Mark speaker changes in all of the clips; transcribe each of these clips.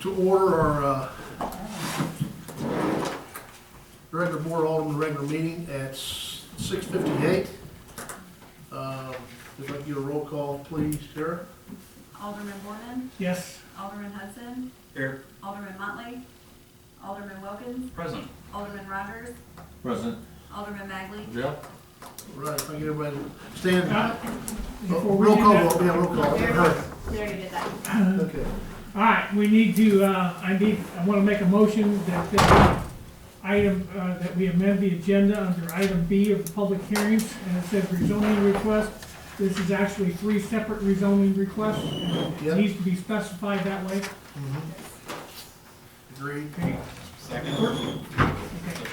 Speaker 1: To order our uh, regular board Alderman regular meeting at six fifty-eight. Um, If I could get a roll call, please, Sarah?
Speaker 2: Alderman Borman,
Speaker 3: Yes.
Speaker 2: Alderman Hudson,
Speaker 4: Here.
Speaker 2: Alderman Motley, Alderman Wilkins,
Speaker 4: Present.
Speaker 2: Alderman Rogers,
Speaker 5: Present.
Speaker 2: Alderman Magley,
Speaker 5: Jeff?
Speaker 1: Right, if I get everybody to stand. Oh,
Speaker 3: Uh, before we
Speaker 1: Roll
Speaker 3: do
Speaker 1: call,
Speaker 3: that-
Speaker 1: roll- yeah, roll call. Hurry.
Speaker 2: we already did that.
Speaker 1: Okay.
Speaker 3: All right, we need to, uh, I need, I want to make a motion that the item, uh, that we amend the agenda under item B of the public hearings, and it says rezoning request. This is actually three separate rezoning requests, and it
Speaker 1: Yep.
Speaker 3: needs to be specified that way.
Speaker 1: Agreed.
Speaker 3: Okay,
Speaker 4: Second.
Speaker 3: okay.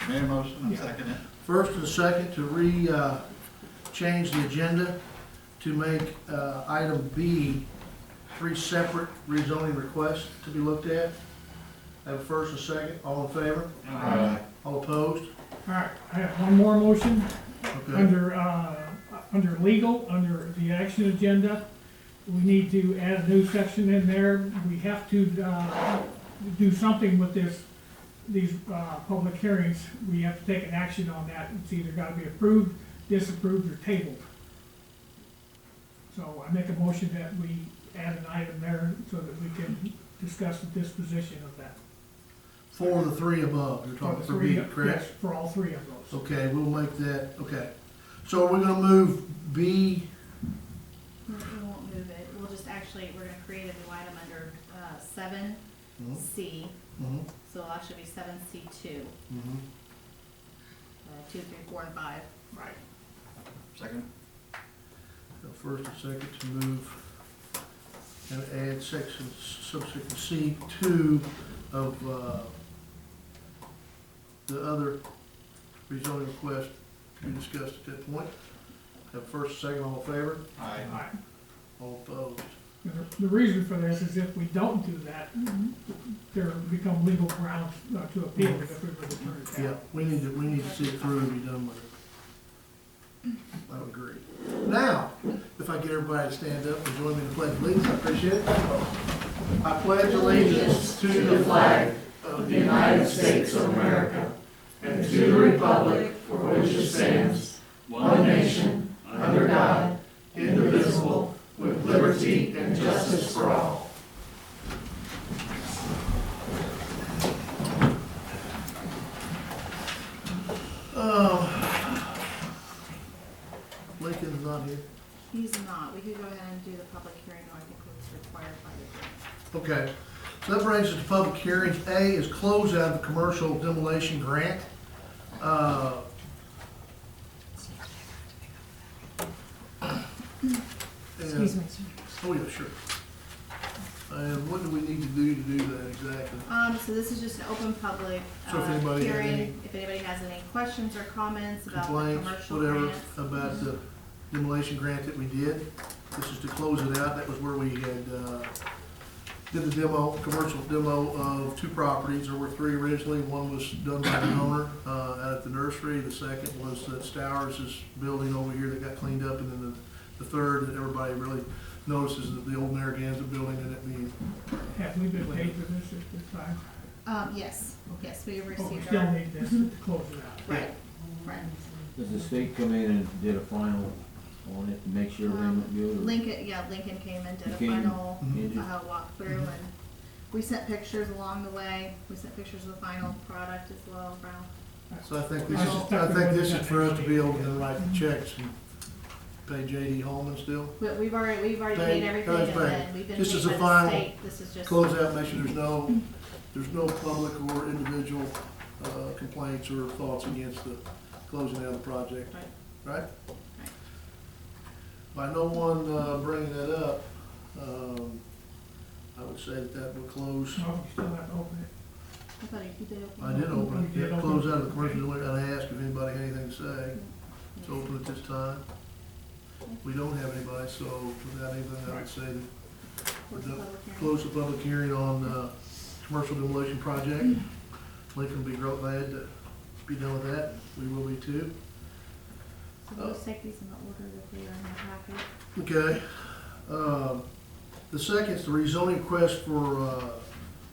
Speaker 4: Made a motion, I'm
Speaker 3: Yeah.
Speaker 4: seconding
Speaker 1: First and second to re, uh, change the agenda to make uh, item B three separate rezoning requests to be looked at. Have a first and second, all in favor?
Speaker 4: it.
Speaker 5: Aye.
Speaker 1: All opposed?
Speaker 3: All right, I have one more motion.
Speaker 1: Okay.
Speaker 3: Under, uh, under legal, under the action agenda, we need to add a new section in there. We have to, uh, do something with this, these, uh, public hearings. We have to take an action on that. It's either gotta be approved, disapproved, or tabled. So I make a motion that we add an item there so that we can discuss the disposition of that.
Speaker 1: For the three above, you're talking for B,
Speaker 3: Three of-
Speaker 1: correct?
Speaker 3: yes, For all three of those.
Speaker 1: Okay, we'll make that, okay. So we're gonna move B,
Speaker 2: We won't move it, we'll just actually, we're gonna create a new item under, uh, seven
Speaker 1: Mhm.
Speaker 2: C,
Speaker 1: mhm,
Speaker 2: so it'll actually be seven C two,
Speaker 1: mhm,
Speaker 2: uh, two, three, four, and five.
Speaker 3: Right.
Speaker 4: Second.
Speaker 1: a first and second to move and add section, subsection C two of, uh, the other rezoning request to be discussed at that point. Have first, second, all in favor,
Speaker 4: Aye.
Speaker 3: All right.
Speaker 1: all opposed.
Speaker 3: The reason for this is if we don't do that,
Speaker 6: Mm-hmm.
Speaker 3: there become legal grounds uh, to appeal it if we were to turn it
Speaker 1: Yeah,
Speaker 3: down.
Speaker 1: we need to, we need to see it through and be done with it. I would agree. Now, if I get everybody to stand up and join me to pledge allegiance, I appreciate it. I pledge allegiance to the flag of the United States of America and to the republic for which it stands,
Speaker 4: One
Speaker 1: nation, under God, indivisible, with liberty and justice for all. Oh. Lincoln's not here.
Speaker 2: He's not, we could go ahead and do the public hearing, though I think it's required by the.
Speaker 1: Okay, so that brings us to public hearings. A is close out of the commercial demolition grant. Uh,
Speaker 6: Excuse
Speaker 1: And,
Speaker 6: me, sir.
Speaker 1: oh yeah, sure. And what do we need to do to do that exactly?
Speaker 2: Um, so this is just an open public,
Speaker 1: So if
Speaker 2: uh,
Speaker 1: anybody had any-
Speaker 2: hearing, if anybody has any questions or comments about the commercial
Speaker 1: Complaints, whatever,
Speaker 2: grants.
Speaker 1: about the demolition grant that we did. This is to close it out. That was where we had, uh, did the demo, commercial demo of two properties. There were three originally. One was done by the owner, uh, out at the nursery. The second was uh, Stowers' building over here that got cleaned up. And then the, the third that everybody really notices is the old Narragansett building and it being,
Speaker 3: Have we been paid for this at this time?
Speaker 2: Um, yes, yes, we
Speaker 3: But we
Speaker 2: received
Speaker 3: still
Speaker 2: our,
Speaker 3: need this to close it out.
Speaker 2: right, right.
Speaker 5: Does the state come in and did a final on it to make sure they look good? or-
Speaker 2: Lincoln, yeah, Lincoln came and did a
Speaker 5: Lincoln.
Speaker 2: final,
Speaker 5: Did you?
Speaker 2: uh, walkthrough and we sent pictures along the way. We sent pictures of the final product as well, Brown.
Speaker 1: so I think this is, I think this is for us to be able to write the checks and pay J.D. Holman still.
Speaker 2: But we've already, we've already
Speaker 1: Thank-
Speaker 2: made everything
Speaker 1: thank-
Speaker 2: and then we've been
Speaker 1: This
Speaker 2: paid
Speaker 1: is the
Speaker 2: by the
Speaker 1: final
Speaker 2: state. This is just.
Speaker 1: close out, make sure there's no, there's no public or individual uh, complaints or thoughts against the closing out of the project,
Speaker 2: Right.
Speaker 1: right? By no one uh, bringing that up, um, I would say that that would close,
Speaker 6: Mm-hmm.
Speaker 3: So we still have to open it.
Speaker 2: I thought you did open.
Speaker 1: I did open it, yeah, close out of the commercial, we gotta ask if anybody had anything to say. It's open at this time. We don't have anybody, so without anything, I would say that
Speaker 2: Close the public hearing.
Speaker 1: Close the public hearing on, uh, commercial demolition project. Lincoln will be real glad to be done with that. We will be too.
Speaker 2: So
Speaker 1: Uh.
Speaker 2: we'll just take these in the order that they are in the packet.
Speaker 1: Okay. Um, the second is the rezoning request for, uh,